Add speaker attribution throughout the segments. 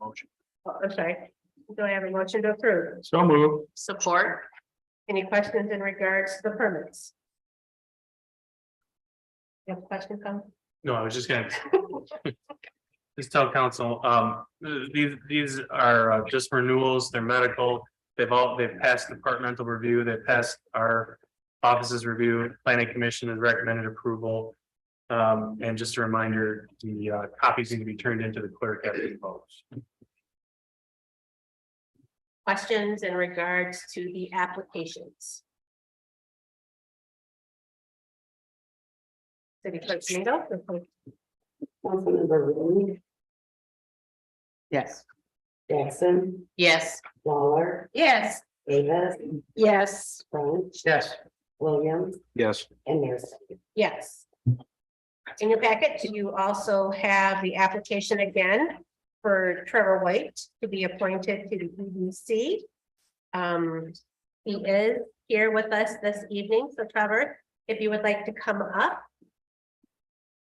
Speaker 1: Motion.
Speaker 2: Oh, I'm sorry. Do I have a motion to approve?
Speaker 1: So moved.
Speaker 3: Support,
Speaker 2: Any questions in regards to the permits? You have a question, come?
Speaker 1: No, I was just gonna. Just tell council, um, th- these, these are uh, just renewals, they're medical. They've all, they've passed departmental review, they've passed our offices review, planning commission has recommended approval. Um, and just a reminder, the uh, copies need to be turned into the clerk after the vote.
Speaker 2: Questions in regards to the applications? City Clerk Domingo?
Speaker 4: Councilmember Rooney,
Speaker 5: Yes.
Speaker 4: Jackson,
Speaker 3: yes.
Speaker 4: Lawler,
Speaker 3: Yes.
Speaker 4: Davis,
Speaker 5: Yes.
Speaker 4: French,
Speaker 5: Yes.
Speaker 4: Williams,
Speaker 6: Yes.
Speaker 4: and Mayor Snyder.
Speaker 2: Yes. In your packet, you also have the application again for Trevor White to be appointed to the EDC. Um, he is here with us this evening, so Trevor, if you would like to come up.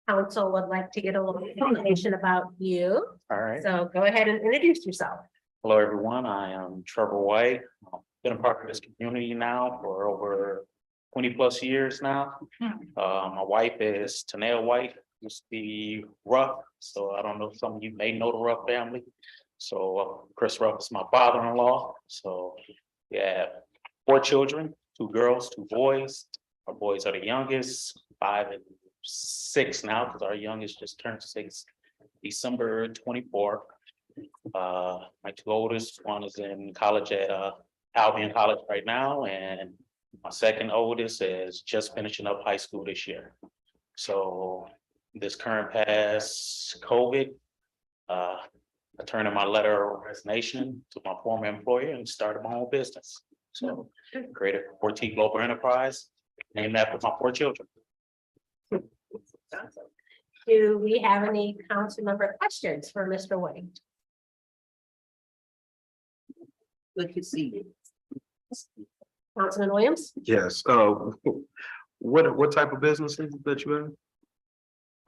Speaker 2: Council would like to get a little information about you,
Speaker 7: All right.
Speaker 2: so go ahead and introduce yourself.
Speaker 7: Hello, everyone. I am Trevor White. I've Been a part of this community now for over twenty plus years now. Uh, my wife is Tanea White, used to be Ruff, so I don't know, if some of you may know the Ruff family. So uh, Chris Ruff is my father-in-law, so yeah, four children, two girls, two boys. Our boys are the youngest, five and six now, because our youngest just turned six, December twenty-fourth. Uh, my two oldest, one is in college at uh Albion College right now, and my second oldest is just finishing up high school this year. So this current past COVID, uh, I turned in my letter of resignation to my former employer and started my own business. So created Forte Global Enterprise, named after my four children.
Speaker 2: Do we have any council member questions for Mr. White?
Speaker 5: Good to see you.
Speaker 2: Councilman Williams?
Speaker 6: Yes, uh, what, what type of business is it that you in?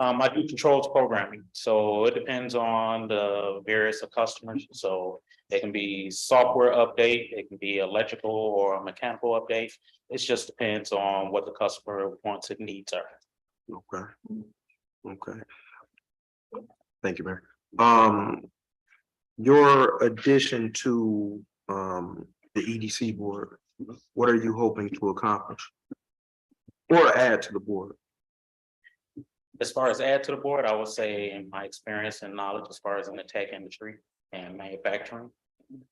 Speaker 7: Um, I do controls programming, so it depends on the various of customers, so it can be software update, it can be electrical or a mechanical update. It just depends on what the customer wants and needs are.
Speaker 6: Okay. Okay. Thank you, Mayor. Um, your addition to, um, the EDC board, what are you hoping to accomplish? Or add to the board?
Speaker 7: As far as add to the board, I would say in my experience and knowledge as far as in the tech industry and manufacturing.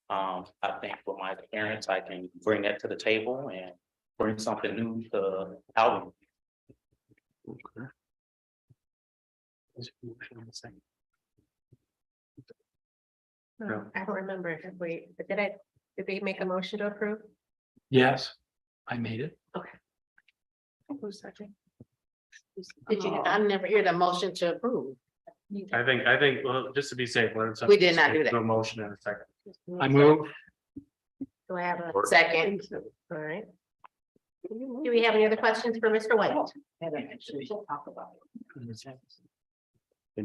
Speaker 7: Um, I think with my experience, I can bring that to the table and bring something new to Alvin.
Speaker 6: Okay.
Speaker 2: No, I don't remember if we, but did I, did we make a motion to approve?
Speaker 1: Yes, I made it.
Speaker 3: Did you, I never hear the motion to approve.
Speaker 1: I think, I think, well, just to be safe.
Speaker 3: We did not do that.
Speaker 1: No motion in a second.
Speaker 2: I
Speaker 1: move.
Speaker 2: Do I have a, all
Speaker 3: Second,
Speaker 2: right. Do we have any other questions for Mr. White?
Speaker 6: Any other-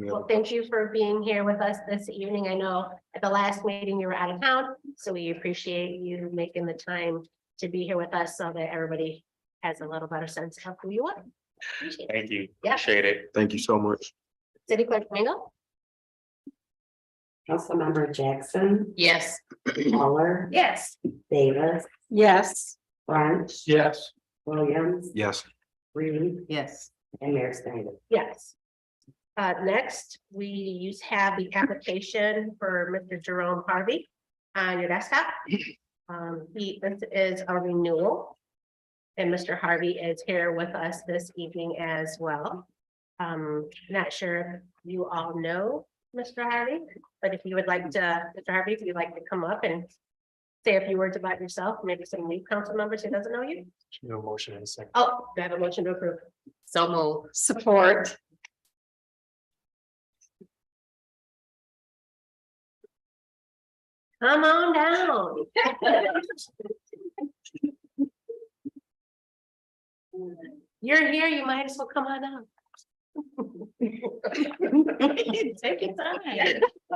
Speaker 2: Well, thank you for being here with us this evening. I know at the last meeting you were out of town, so we appreciate you making the time to be here with us so that everybody has a little better sense of who you are. Appreciate it.
Speaker 7: Thank you.
Speaker 2: Yeah.
Speaker 7: Appreciate it.
Speaker 6: Thank you so much.
Speaker 2: City Clerk Domingo?
Speaker 4: Councilmember Jackson,
Speaker 3: yes.
Speaker 4: Lawler,
Speaker 2: Yes.
Speaker 4: Davis,
Speaker 5: Yes.
Speaker 4: French,
Speaker 1: Yes.
Speaker 4: Williams,
Speaker 6: Yes.
Speaker 4: Reed,
Speaker 5: Yes.
Speaker 4: and Mayor Snyder.
Speaker 2: Yes. Uh, next, we use have the application for Mr. Jerome Harvey on your desktop. Um, he, this is a renewal. And Mr. Harvey is here with us this evening as well. Um, not sure if you all know Mr. Harvey, but if you would like to, Mr. Harvey, if you'd like to come up and say a few words about yourself, maybe some new council members who doesn't know you.
Speaker 1: No motion in a second.
Speaker 2: Oh, do I have a motion to approve?
Speaker 3: So move.
Speaker 5: Support.
Speaker 2: Come on down. You're here, you might as well come on up. Take your time.